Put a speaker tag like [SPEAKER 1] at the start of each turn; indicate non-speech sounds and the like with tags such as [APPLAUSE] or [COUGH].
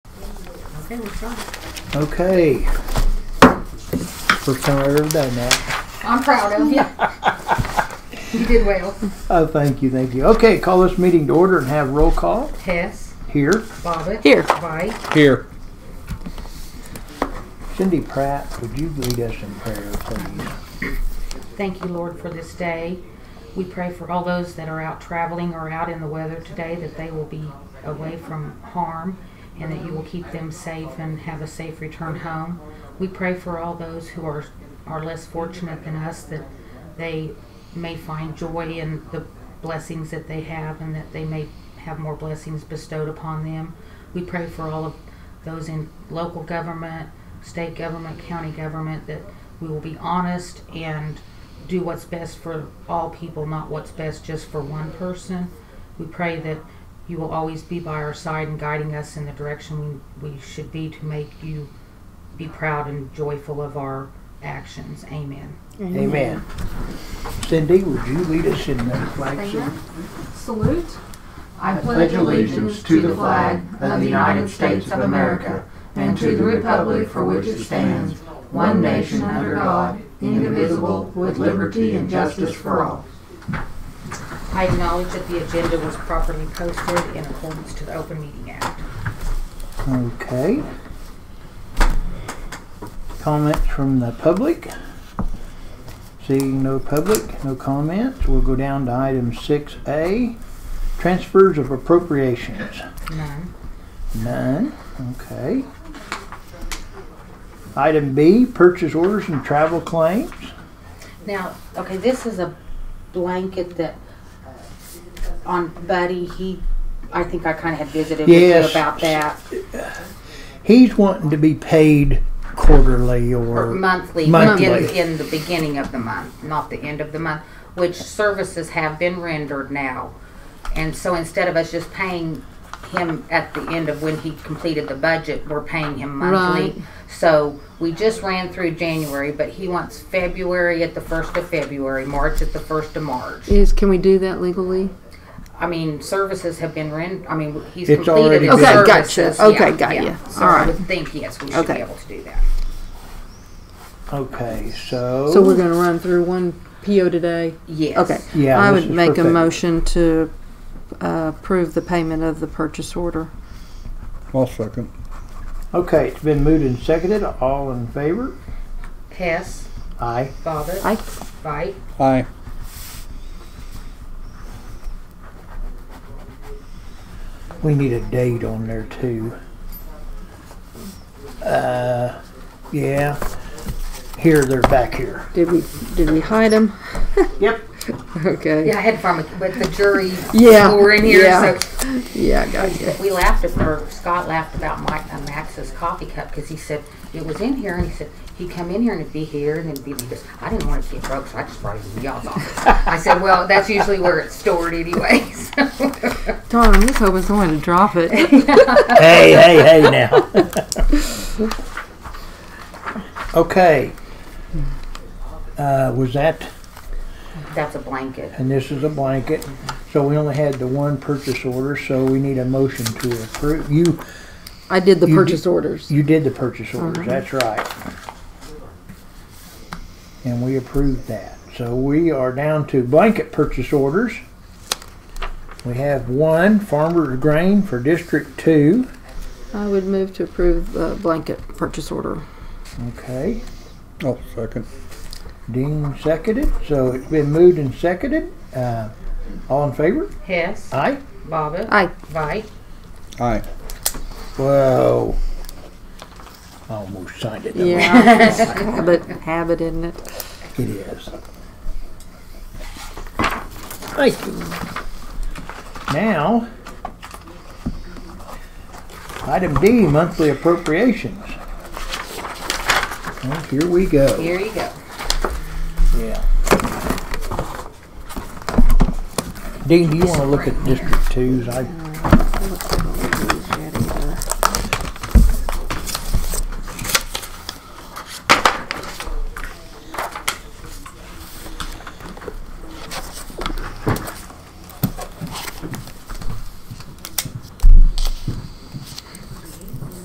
[SPEAKER 1] Okay, what's up?
[SPEAKER 2] Okay. First time I've ever done that.
[SPEAKER 1] I'm proud of you. [LAUGHS] you did well.
[SPEAKER 2] Oh, thank you, thank you. Okay, call this meeting to order and have roll call
[SPEAKER 1] Hess,
[SPEAKER 2] here.
[SPEAKER 1] Bobbit,
[SPEAKER 3] Here.
[SPEAKER 1] Vite,
[SPEAKER 4] Here.
[SPEAKER 2] Cindy Pratt, would you lead us in prayer, please?
[SPEAKER 1] Thank you, Lord, for this day. We pray for all those that are out traveling or out in the weather today that they will be away from harm and that you will keep them safe and have a safe return home. We pray for all those who are, are less fortunate than us that they may find joy in the blessings that they have and that they may have more blessings bestowed upon them. We pray for all of those in local government, state government, county government, that we will be honest and do what's best for all people, not what's best just for one person. We pray that you will always be by our side and guiding us in the direction we, we should be to make you be proud and joyful of our actions. Amen.
[SPEAKER 2] Amen. Cindy, would you lead us in the flag? salute?
[SPEAKER 5] Salute. I
[SPEAKER 6] pledge allegiance to the flag of the United States of America and to the republic for which it stands, one nation under God, indivisible, with liberty and justice for all.
[SPEAKER 1] I acknowledge that the agenda was properly posted in accordance to the Open Meeting Act.
[SPEAKER 2] Okay. Comments from the public? Seeing no public, no comments, we'll go down to item six A, transfers of appropriations.
[SPEAKER 1] None.
[SPEAKER 2] None. Okay. Item B, purchase orders and travel claims.
[SPEAKER 1] Now, okay, this is a blanket that uh, on Buddy, he, I think I kind of had visited with
[SPEAKER 2] Yes.
[SPEAKER 1] you about that.
[SPEAKER 2] He's wanting to be paid quarterly
[SPEAKER 1] Or
[SPEAKER 2] or,
[SPEAKER 1] monthly,
[SPEAKER 2] Monthly.
[SPEAKER 1] In, in the beginning of the month, not the end of the month, which services have been rendered now. And so instead of us just paying him at the end of when he completed the budget, we're paying him monthly.
[SPEAKER 3] Right.
[SPEAKER 1] So we just ran through January, but he wants February at the first of February, March at the first of March.
[SPEAKER 3] Is can we do that legally?
[SPEAKER 1] I mean, services have been rent, I mean, he's
[SPEAKER 2] It's
[SPEAKER 1] completed
[SPEAKER 2] already
[SPEAKER 1] his
[SPEAKER 2] been-
[SPEAKER 3] Okay, gotcha.
[SPEAKER 1] services.
[SPEAKER 3] Okay,
[SPEAKER 1] Yeah,
[SPEAKER 3] got
[SPEAKER 1] yeah.
[SPEAKER 3] ya.
[SPEAKER 1] So I
[SPEAKER 3] Alright.
[SPEAKER 1] would think, yes, we should be
[SPEAKER 3] Okay.
[SPEAKER 1] able to do that.
[SPEAKER 2] okay, so.
[SPEAKER 3] So we're gonna run through one PO today.
[SPEAKER 1] Yes.
[SPEAKER 3] Okay.
[SPEAKER 2] Yeah,
[SPEAKER 3] I
[SPEAKER 2] this
[SPEAKER 3] would
[SPEAKER 2] is
[SPEAKER 3] make a
[SPEAKER 2] perfect.
[SPEAKER 3] motion to uh, approve the payment of the purchase order.
[SPEAKER 4] I'll second.
[SPEAKER 2] Okay, it's been moved and seconded. All in favor?
[SPEAKER 1] Hess,
[SPEAKER 2] Aye.
[SPEAKER 1] Bobbit,
[SPEAKER 3] I
[SPEAKER 1] Vite,
[SPEAKER 4] Aye.
[SPEAKER 2] We need a date on there too. Uh, yeah. Here, they're back here.
[SPEAKER 3] [LAUGHS] did we did we hide [LAUGHS] them?
[SPEAKER 2] Yep.
[SPEAKER 3] Okay.
[SPEAKER 1] Yeah, I had fun with, with the jury.
[SPEAKER 3] Yeah,
[SPEAKER 1] Who were in here.
[SPEAKER 3] yeah.
[SPEAKER 1] So
[SPEAKER 3] Yeah, I got you.
[SPEAKER 1] we laughed, at, or Scott laughed about Mike, uh, Max's coffee cup because he said it was in here, and he said he'd come in here and it'd be here, and then be he goes, I didn't want it to get broke, so I just brought it to y'all's office. I said, well, that's usually where it's stored, [LAUGHS] anyways.
[SPEAKER 3] Darn, I'm just hoping someone to drop it.
[SPEAKER 2] hey, hey, hey now. okay. Uh, was that,
[SPEAKER 1] that's a blanket.
[SPEAKER 2] and this is a blanket, so we only had the one purchase order, so we need a motion to approve. You,
[SPEAKER 3] I did the
[SPEAKER 2] You
[SPEAKER 3] purchase orders.
[SPEAKER 2] you did the purchase orders,
[SPEAKER 3] Mhm.
[SPEAKER 2] that's right. And we approved that. So we are down to blanket purchase orders. We have one, Farmer's Grain for District Two.
[SPEAKER 3] I would move to approve the blanket purchase order.
[SPEAKER 2] Okay.
[SPEAKER 4] I'll second.
[SPEAKER 2] Dean seconded, so it's been moved and seconded. Uh, all in favor?
[SPEAKER 1] Hess,
[SPEAKER 2] Aye.
[SPEAKER 1] Bobbit,
[SPEAKER 3] I
[SPEAKER 1] Vite,
[SPEAKER 4] Aye.
[SPEAKER 2] Whoa. I Almost signed it. didn't I? [LAUGHS]
[SPEAKER 3] yeah, but habit, isn't it?
[SPEAKER 2] It is. Thank you. Now, item D, monthly appropriations. Well, here we go.
[SPEAKER 1] here you go.
[SPEAKER 2] Yeah. Dean, do you want to look at District Twos? I